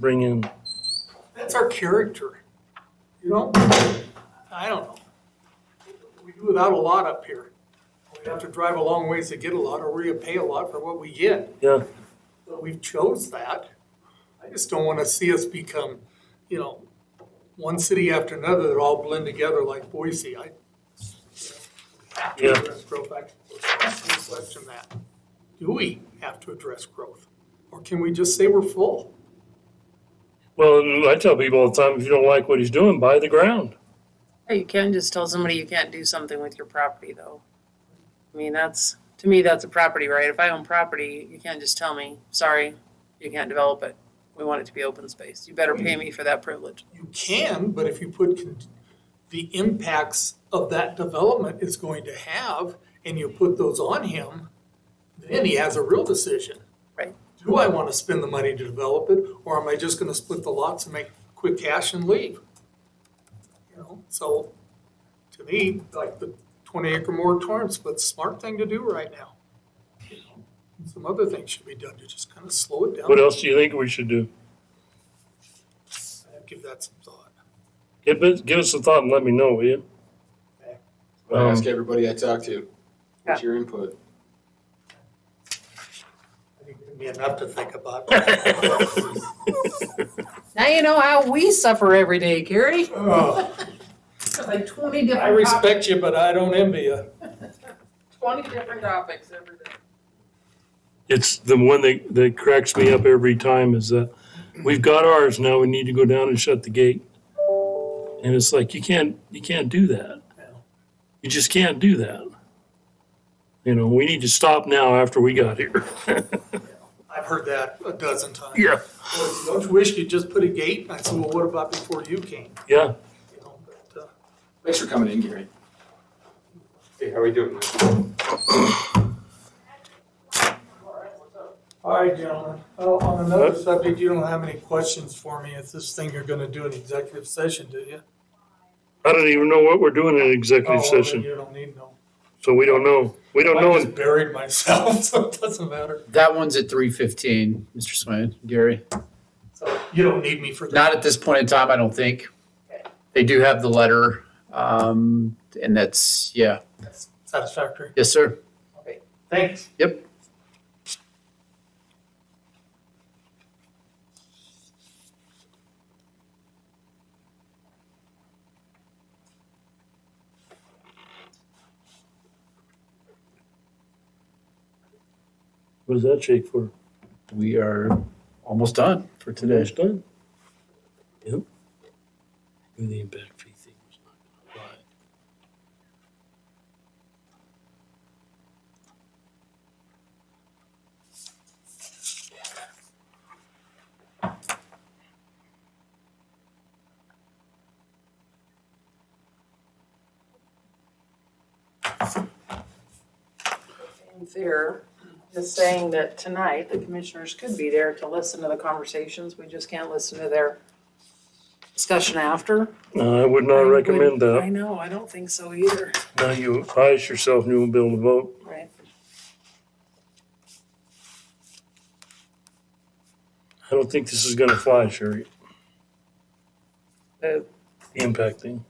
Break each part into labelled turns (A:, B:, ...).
A: bring in?
B: That's our character, you know? I don't know. We do without a lot up here. We have to drive a long ways to get a lot, or we pay a lot for what we get.
A: Yeah,
B: But we chose that. I just don't wanna see us become, you know, one city after another that all blend together like Boise. I. Have to
A: Yeah.
B: address growth. I question that. Do we have to address growth? Or can we just say we're full?
A: well, and I tell people all the time, if you don't like what he's doing, buy the ground.
C: Yeah, you can just tell somebody you can't do something with your property though. I mean, that's, to me, that's a property right. If I own property, you can't just tell me, sorry, you can't develop it. We want it to be open space. You better pay me for that privilege.
B: You can, but if you put con- the impacts of that development is going to have, and you put those on him, then he has a real decision.
C: Right.
B: Do I wanna spend the money to develop it, or am I just gonna split the lots and make quick cash and leave? You know, so, to me, like the twenty acre moratorium's the smart thing to do right now. You know, Some other things should be done to just kinda slow it
A: What
B: down,
A: else do you think we should do?
B: give that some thought.
A: Give us, give us a thought and let me know, will you?
D: I ask
A: Um,
D: everybody I talk to, what's your input?
B: I think it'd be enough to think about.
A: Um,
C: Now you know how we suffer every day, Gary.
B: Oh,
C: Like twenty
B: I respect you, but I don't envy you.
C: twenty different topics every day.
A: It's the one that, that cracks me up every time is that we've got ours, now we need to go down and shut the gate. And it's like, you can't, you can't do that. You just can't do that. You know, we need to stop now after we got here.
B: I've heard that a dozen times.
A: Yeah.
B: Well, Don't you wish you'd just put a gate? I said, well, what about before you came?
A: Yeah,
B: You know, but, uh,
D: Thanks for coming in, Gary.
E: Hey, how we doing?
B: All right, gentlemen. Oh, on another subject, you don't have any questions for me. It's this thing you're gonna do in executive session, do you?
A: I don't even know what we're doing in executive
B: Oh, well, then
A: session,
B: You don't need no.
A: so we don't know. We
F: Oh,
A: don't
B: I
A: know.
B: just buried myself, so it doesn't matter.
F: That one's at three fifteen, Mr. Swain, Gary.
B: So you don't need me for that.
F: Not at this point in time, I don't think. They do have the letter, um, and that's, yeah,
B: That's Satisfactory.
F: yes, sir.
B: Thanks.
F: Yep.
A: What does that shake for?
F: We are almost done for today.
A: It's done. Yep. Do the impact fee thing. was not gonna apply.
C: Fear is saying that tonight the commissioners could be there to listen to the conversations. We just can't listen to their discussion after.
A: No, Uh, I would not
C: I would-
A: recommend
C: I
A: that.
C: know, I don't think so either.
A: Now you ice yourself and you won't be able to vote.
C: Right.
A: I don't think this is gonna fly, Sherry,
C: Uh,
A: the impact thing.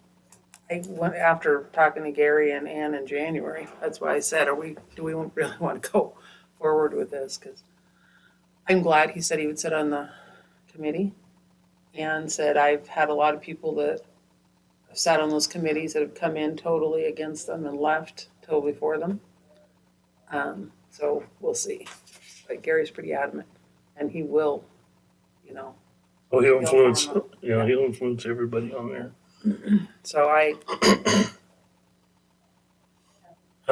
C: I went after talking to Gary and Ann in January. That's why I said, are we, do we really want to go forward with this? Because I'm glad he said he would sit on the committee. And said, I've had a lot of people that have sat on those committees that have come in totally against them and left totally for them. Um, so we'll see. But Gary's pretty adamant and he will, you know,
A: Oh, he'll
C: He'll
A: influence,
C: harm
A: yeah, he'll influence everybody on there.
C: so I,
A: I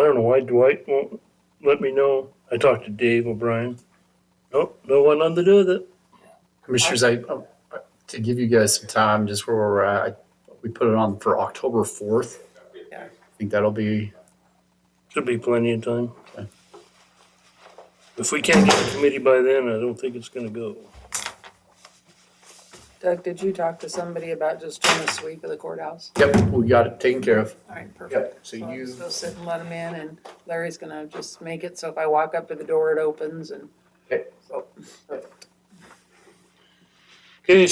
A: don't know why Dwight won't let me know. I talked to Dave O'Brien. Nope, no one nothing to do with it.
F: Commissioners, I, oh, I- to give you guys some time, just where we're at, I- we put it on for October fourth.
C: Yeah.
F: I think that'll be,
A: Should be plenty of time. If we can't get a committee by then, I don't think it's gonna go.
C: Doug, did you talk to somebody about just doing a sweep of the courthouse?
F: yep, we got it taken care of.
C: All right, perfect.
F: Yep. So
C: So I'll
F: you,
C: just go sit and let them in and Larry's gonna just make it so if I walk up to the door, it opens and.
F: Okay.
C: So,